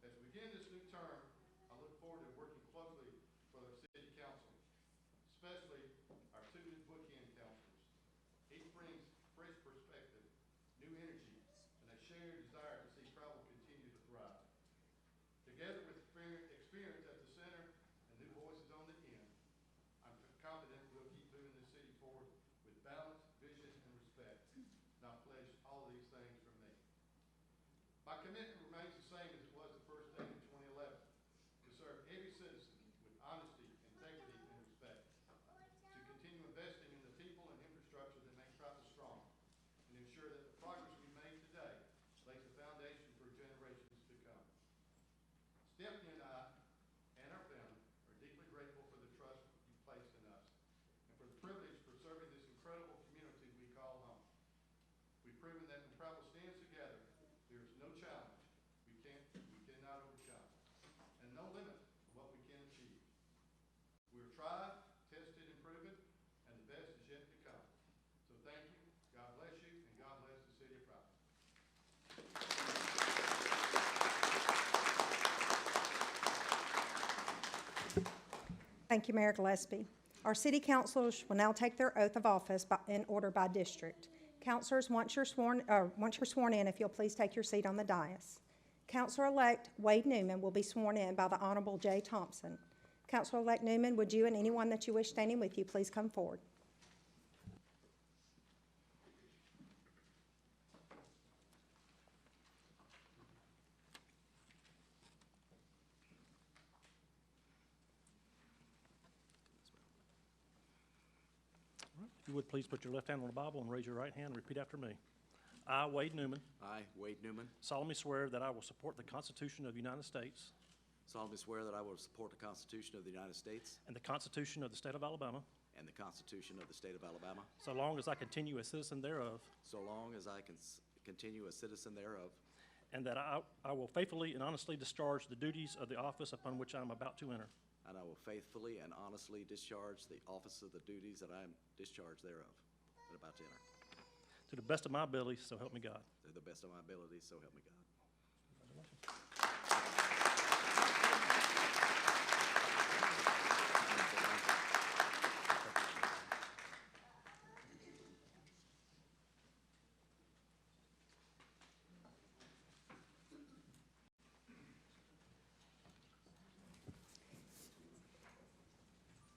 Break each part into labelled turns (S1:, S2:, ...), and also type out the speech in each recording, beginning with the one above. S1: begin this new term, I look forward to working closely with our city council, especially our two new bookend councilors. Each brings fresh perspective, new energy, and a shared desire to see travel continue to thrive. Together with exper- experience at the center and new voices on the end, I'm confident we'll keep moving the city forward with balance, vision, and respect. And I pledge all of these things from me. My commitment remains the same as it was the first day in 2011, to serve every citizen with honesty, integrity, and respect, to continue investing in the people and infrastructure that make Prattville strong, and ensure that the progress we make today lays the foundation for generations to come. Stephanie and I, and our family, are deeply grateful for the trust you placed in us, and for the privilege for serving this incredible community we call home. We've proven that when Prattville stands together, there is no challenge we can't, we cannot overcome, and no limit to what we can achieve. We are tried, tested, and proven, and the best is yet to come. So thank you, God bless you, and God bless the city of Prattville.
S2: Thank you, Mayor Gillespie. Our city councilors will now take their oath of office by- in order by district. Councilors, once you're sworn, uh, once you're sworn in, if you'll please take your seat on the dais. Councilor-elect Wade Newman will be sworn in by the Honorable Jay Thompson. Councilor-elect Newman, would you and anyone that you wish standing with you please come forward?
S3: All right. If you would, please put your left hand on the Bible and raise your right hand and repeat after me. I, Wade Newman,
S4: I, Wade Newman,
S3: solemnly swear that I will support the Constitution of the United States
S4: solemnly swear that I will support the Constitution of the United States
S3: and the Constitution of the State of Alabama,
S4: and the Constitution of the State of Alabama,
S3: so long as I continue a citizen thereof,
S4: so long as I can s- continue a citizen thereof,
S3: and that I I will faithfully and honestly discharge the duties of the office upon which I am about to enter.
S4: and I will faithfully and honestly discharge the office of the duties that I am discharged thereof, that about to enter,
S3: To the best of my ability, so help me God.
S4: to the best of my ability, so help me God.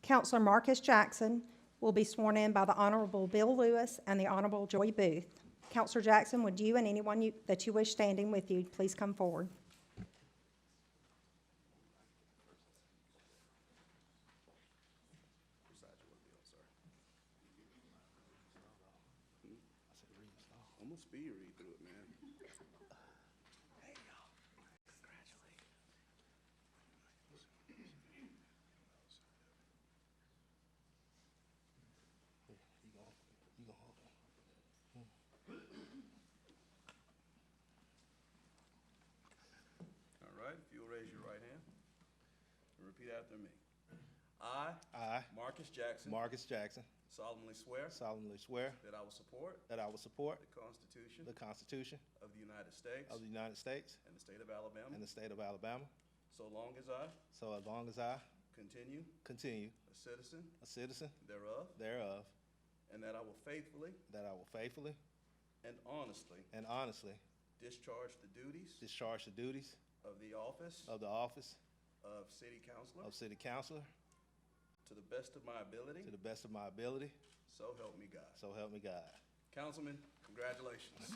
S2: Counselor Marcus Jackson will be sworn in by the Honorable Bill Lewis and the Honorable Joy Booth. Counselor Jackson, would you and anyone you- that you wish standing with you please come forward?
S5: Almost be your read through it, man. All right, if you'll raise your right hand and repeat after me. I.
S6: I,
S5: Marcus Jackson.
S6: Marcus Jackson,
S5: solemnly swear
S6: solemnly swear
S5: that I will support
S6: that I will support
S5: the Constitution
S6: the Constitution
S5: of the United States
S6: of the United States
S5: and the state of Alabama,
S6: and the state of Alabama,
S5: so long as I
S6: so as long as I
S5: continue
S6: continue
S5: a citizen
S6: a citizen
S5: thereof,
S6: thereof,
S5: and that I will faithfully
S6: that I will faithfully
S5: and honestly
S6: and honestly
S5: discharge the duties
S6: discharge the duties
S5: of the office
S6: of the office
S5: of city councilor
S6: of city councilor
S5: to the best of my ability,
S6: to the best of my ability,
S5: so help me God.
S6: so help me God.
S5: Councilman, congratulations.